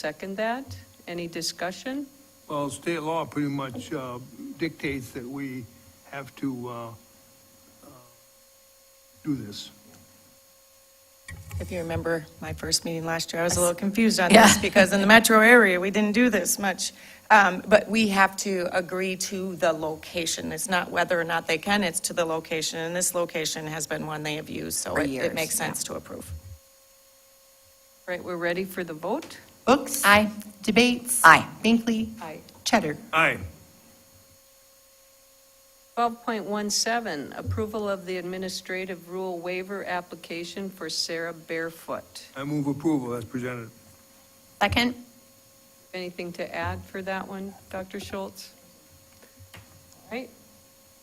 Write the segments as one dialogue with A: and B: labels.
A: Second that. Any discussion?
B: Well, state law pretty much uh, dictates that we have to uh, uh, do this.
C: If you remember my first meeting last year, I was a little confused on this because in the metro area, we didn't do this much. Um, But we have to agree to the location. It's not whether or not they can, it's to the location. And this location has been one they have used, so
D: For
C: it-
D: years,
C: it makes
D: yeah.
C: sense to approve.
A: Right, we're ready for the vote?
E: Books?
D: Aye.
E: Debates?
D: Aye.
E: Binkley?
A: Aye.
E: Cheddar?
B: Aye.
A: 12.17, approval of the administrative rule waiver application for Sarah Barefoot.
B: I move approval as presented.
D: Second?
A: Anything to add for that one, Dr. Schultz? All right,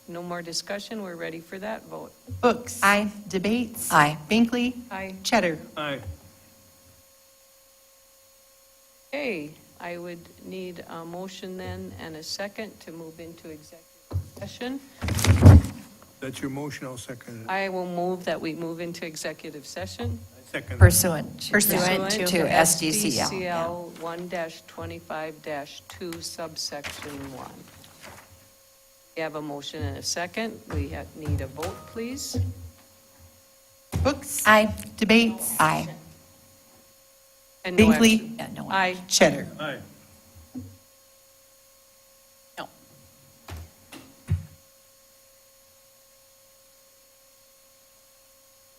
A: no more discussion, we're ready for that vote.
E: Books?
D: Aye.
E: Debates?
D: Aye.
E: Binkley?
A: Aye.
E: Cheddar?
B: Aye.
A: Okay, I would need a motion then and a second to move into executive session.
B: That's your motion, I'll second it.
A: I will move that we move into executive session.
B: Second. it.
D: Pursuant. to-
A: Pursuant
D: To SDCL. yeah.
A: SDCL 1-25-2 subsection 1. We have a motion and a second. We ha- need a vote, please.
E: Books?
D: Aye.
E: Debates?
D: Aye.
A: And no
E: Binkley?
A: action.
D: Yeah, no one.
A: Aye.
E: Cheddar?
B: Aye.